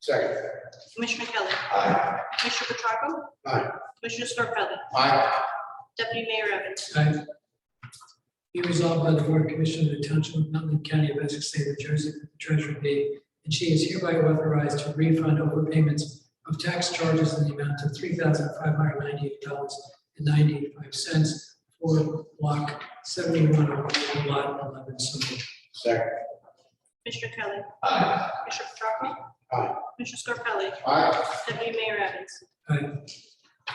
Second. Commissioner Kelly. Aye. Commissioner Petracco. Aye. Commissioner Scarpelli. Aye. Deputy Mayor Evans. Aye. Be resolved by the Board of Commissioners of the Township of Nutley County of Essex State of New Jersey, that the treasurer be, and she is hereby authorized to refund overpayments of tax charges in the amount of three thousand five hundred ninety-eight dollars and ninety-five cents for block seventy-one of lot eleven. So moved. Second. Commissioner Kelly. Aye. Commissioner Petracco. Aye. Commissioner Scarpelli. Aye. Deputy Mayor Evans.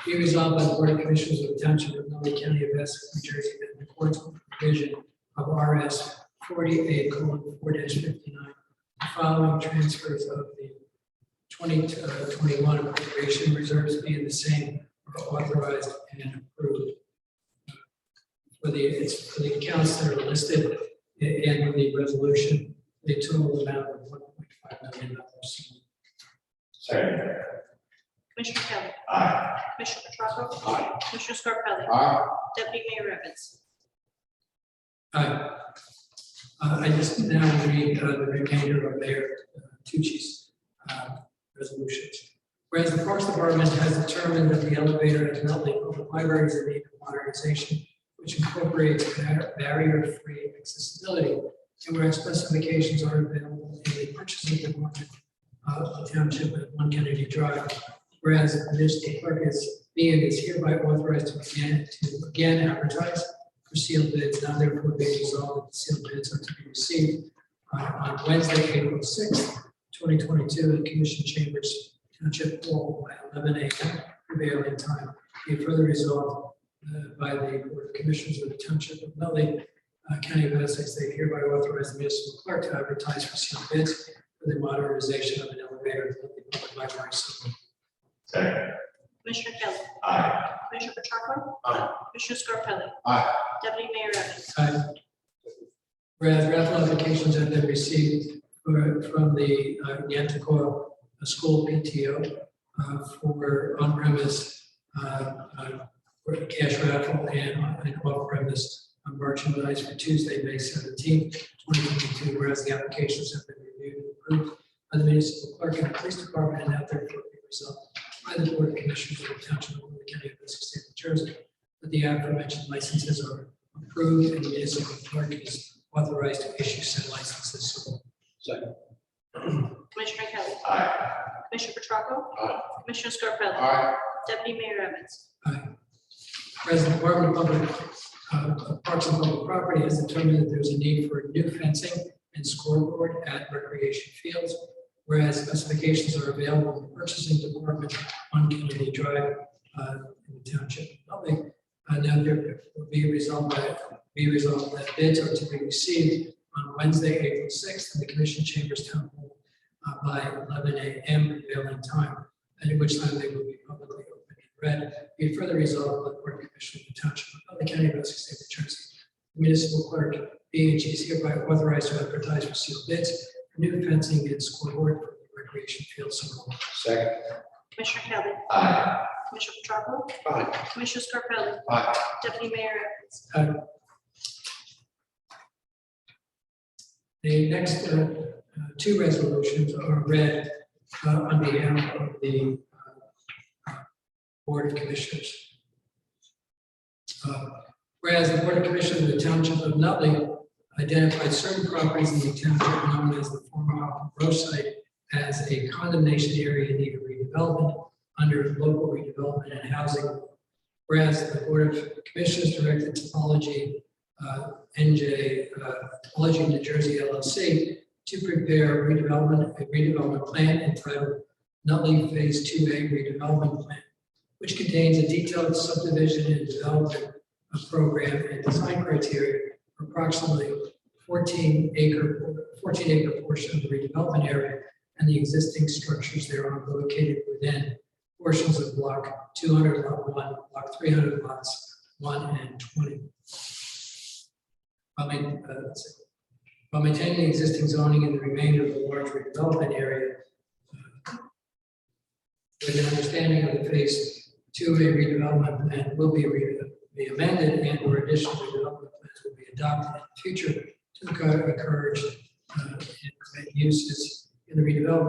Be resolved by the Board of Commissioners of the Township of Nutley County of Essex, New Jersey, that in accordance with the provision of RS forty-eight four fifty-nine, the following transfers of the twenty uh, twenty-one appropriation reserves being the same are authorized and approved. For the, it's for the accounts that are listed i- in the resolution, the total amount of one point five million dollars. Second. Commissioner Kelly. Aye. Commissioner Petracco. Aye. Commissioner Scarpelli. Aye. Deputy Mayor Evans. Aye. Uh, I just now read uh, the remainder of Mayor uh, Tucci's uh, resolutions. Whereas the Parks Department has determined that the elevator at Nutley Public Library is in need of modernization, which incorporates bar- barrier-free accessibility, and whereas specifications are available in the purchasing department of the uh, township at One Kennedy Drive. Whereas the municipal clerk is, being is hereby authorized to begin, to again advertise for sealed bids, now therefore be resolved that the sealed bids are to be received uh, on Wednesday, April sixth, twenty twenty-two, in Commission Chambers, Township Hall, by eleven AM prevailing time. Be it further resolved uh, by the Board of Commissioners of the Township of Nutley, uh, County of Essex, they hereby authorize the municipal clerk to advertise for sealed bids for the modernization of an elevator at the public library. So Second. Commissioner Kelly. Aye. Commissioner Petracco. Aye. Commissioner Scarpelli. Aye. Deputy Mayor Evans. Aye. Whereas raffle applications have been received for- from the uh, Yantacoa School PTO uh, for on-premise uh, uh, for cash raffle and on- and off-premise merchandise for Tuesday, May seventeenth, twenty twenty-two. Whereas the applications have been reviewed and approved by the municipal clerk and the police department and now therefore be resolved by the Board of Commissioners of the Township of Orange County of Essex State of New Jersey that the aforementioned licenses are approved and the municipal clerk is authorized to issue said licenses. So, Second. Commissioner Kelly. Aye. Commissioner Petracco. Aye. Commissioner Scarpelli. Aye. Deputy Mayor Evans. President Department of Public, uh, Parks and Public Property has determined that there's a need for new fencing and scoreboard at recreation fields, whereas specifications are available in the purchasing department on Kennedy Drive uh, in the township of Nutley. Uh, Now there will be resolved by, be resolved that bids are to be received on Wednesday, April sixth, in the commission chambers town hall uh, by eleven AM prevailing time, at which time they will be publicly open and read be it further resolved by the Board of Commissioners of the Township of Nutley County of Essex State of New Jersey. The Municipal clerk, being and she is hereby authorized to advertise for sealed bids for new fencing and scoreboard for the recreation field. So moved. Second. Commissioner Kelly. Aye. Commissioner Petracco. Aye. Commissioner Scarpelli. Aye. Deputy Mayor Evans. The next uh, uh, two resolutions are read uh, on behalf of the uh, Board of Commissioners. Uh, Whereas the Board of Commissioners of the Township of Nutley identified certain properties in the township known as the former Hoffman Row site as a condemnation area in need of redevelopment under local redevelopment and housing. Whereas the Board of Commissioners directed topology uh, NJ uh, College of New Jersey LLC to prepare redevelopment, a redevelopment plan entitled Nutley Phase Two A redevelopment plan, which contains a detailed subdivision and development of program and design criteria for approximately fourteen acre, fourteen acre portion of the redevelopment area and the existing structures thereon located within portions of block two hundred lot one, block three hundred lots one and twenty while main- uh, let's see. While maintaining the existing zoning in the remainder of the large redevelopment area. uh, With an understanding of the phase two A redevelopment plan will be re- be amended and or additional redevelopment plans will be adopted in the future to encourage uh, and prevent uses in the redevelopment